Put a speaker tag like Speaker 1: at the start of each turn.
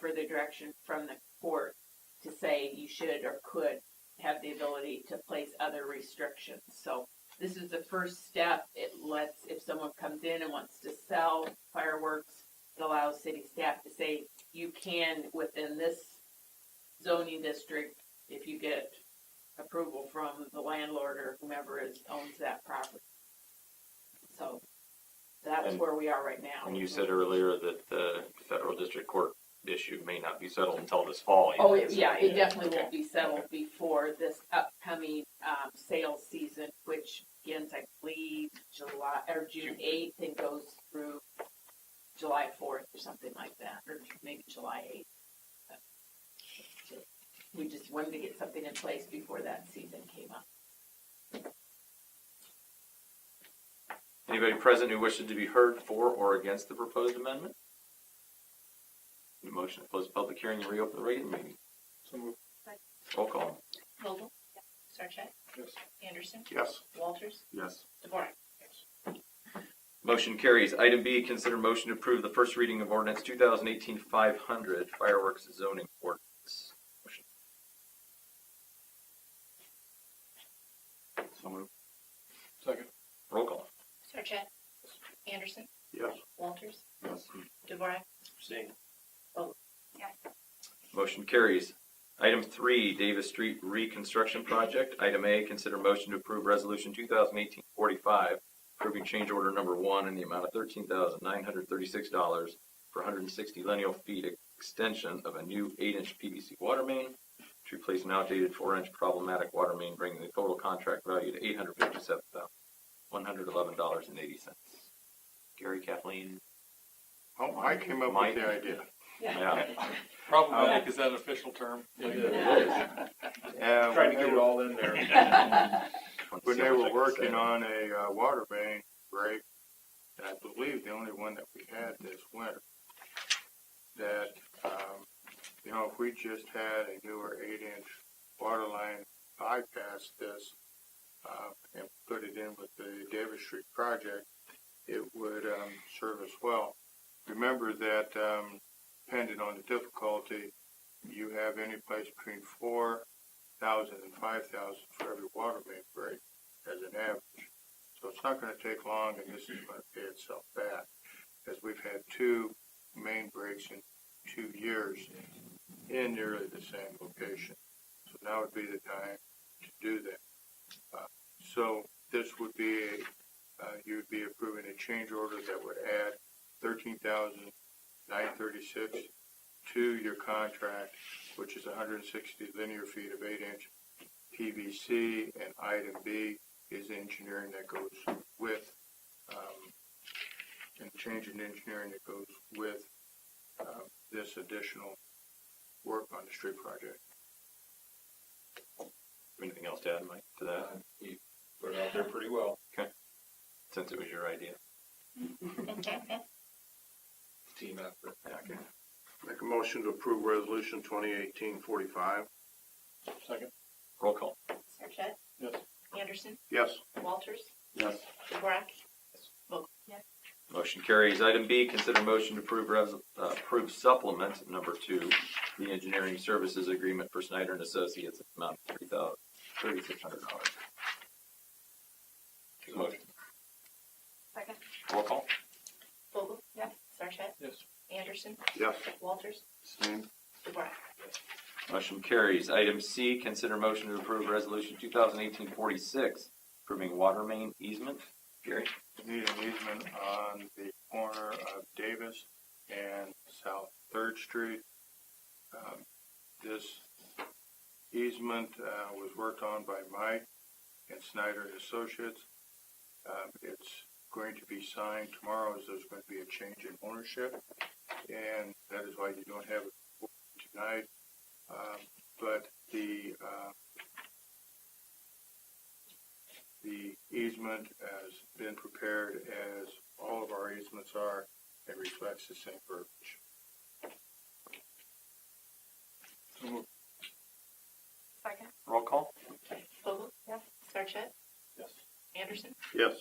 Speaker 1: further direction from the court to say you should or could have the ability to place other restrictions. So this is the first step. It lets, if someone comes in and wants to sell fireworks, it allows city staff to say, you can within this zoning district, if you get approval from the landlord or whomever is, owns that property. So that's
Speaker 2: And-
Speaker 1: where we are right now.
Speaker 2: And you said earlier that the federal district court issue may not be settled until this fall. you
Speaker 1: Oh,
Speaker 2: said,
Speaker 1: it-
Speaker 2: so-
Speaker 1: yeah, it definitely
Speaker 2: okay.
Speaker 1: won't be settled before this upcoming, um, sales season, which begins, I believe, July, or June eighth and goes through July fourth or something like that, or maybe July eighth. We just wanted to get something in place before that season came up.
Speaker 2: Anybody present who wishes to be heard for or against the proposed amendment? Need a motion to close the public hearing and reopen the regular meeting.
Speaker 3: So moved.
Speaker 2: Roll call.
Speaker 4: Vogel? Sarchet?
Speaker 3: Yes.
Speaker 4: Anderson?
Speaker 2: Yes.
Speaker 4: Walters?
Speaker 2: Yes.
Speaker 4: DeVore?
Speaker 2: Motion carries. Item B, consider motion to approve the first reading of ordinance 2018-500 fireworks zoning ordinance. So moved.
Speaker 3: Second.
Speaker 2: Roll call.
Speaker 4: Sarchet? Anderson?
Speaker 3: Yes.
Speaker 4: Walters?
Speaker 2: Yes.
Speaker 4: DeVore?
Speaker 3: Abstain.
Speaker 2: Motion carries. Item three, Davis Street Reconstruction Project. Item A, consider motion to approve resolution 2018-45, approving change order number one in the amount of thirteen thousand nine hundred thirty-six dollars for hundred and sixty lineal feet extension of a new eight-inch PVC water main to replace an outdated four-inch problematic water main, bringing the total contract value to eight hundred fifty-seven thousand one hundred eleven dollars and eighty cents. Gary, Kathleen?
Speaker 5: Oh, I came up
Speaker 2: Mike?
Speaker 5: with the idea.
Speaker 2: Yeah.
Speaker 3: Problematic, is that an official term?
Speaker 5: Uh,
Speaker 3: Trying to
Speaker 5: when
Speaker 3: get
Speaker 5: they-
Speaker 3: it all in there.
Speaker 5: When they were working on a uh, water main break, I believe the only one that we had this winter, that, um, you know, if we just had a newer eight-inch water line bypass this, uh, and put it in with the Davis Street project, it would, um, serve us well. Remember that, um, depending on the difficulty, you have any place between four thousand and five thousand for every water main break as an average. So it's not gonna take long and this is gonna pay itself back, as we've had two main breaks in two years in nearly the same location. So now would be the time to do that. Uh, So this would be, a uh, you would be approving a change order that would add thirteen thousand nine thirty-six to your contract which is hundred and sixty linear feet of eight inch PVC, and item B is engineering that goes with, um, and change in engineering that goes with, um, this additional work on the street project.
Speaker 2: Anything else to add, Mike, to that?
Speaker 3: Put it out there pretty well.
Speaker 2: since it was your idea.
Speaker 3: Team effort.
Speaker 2: Okay.
Speaker 6: Make a motion to approve resolution twenty eighteen forty-five.
Speaker 3: Second.
Speaker 2: Roll call.
Speaker 4: Sarchet?
Speaker 3: Yes.
Speaker 4: Anderson?
Speaker 6: Yes.
Speaker 4: Walters?
Speaker 2: Yes.
Speaker 4: DeVore?
Speaker 2: Motion carries. Item B, consider motion to approve, res- uh, approve supplement number two, the engineering services agreement for Snyder and Associates, in the amount of three thousand, thirty-six hundred dollars. Motion.
Speaker 4: Second.
Speaker 2: Roll call.
Speaker 4: Vogel? Yes. Sarchet?
Speaker 3: Yes.
Speaker 4: Anderson?
Speaker 6: Yes.
Speaker 4: Walters?
Speaker 6: Abstain.
Speaker 4: DeVore?
Speaker 2: Motion carries. Item C, consider motion to approve resolution 2018-46, approving water main easement. Gary?
Speaker 5: Need an easement on the corner of Davis and South Third Street. Um, This easement, uh, was worked on by Mike and Snyder and Associates. Um, it's going to be signed tomorrow, as there's going to be a change in ownership, and that is why you don't have it tonight. Um, but the, uh, the easement has been prepared as all of our easements are, and reflects the same verbiage.
Speaker 3: So moved.
Speaker 4: Second.
Speaker 2: Roll call.
Speaker 4: Vogel? Yes. Sarchet?
Speaker 3: Yes.
Speaker 4: Anderson?
Speaker 6: Yes.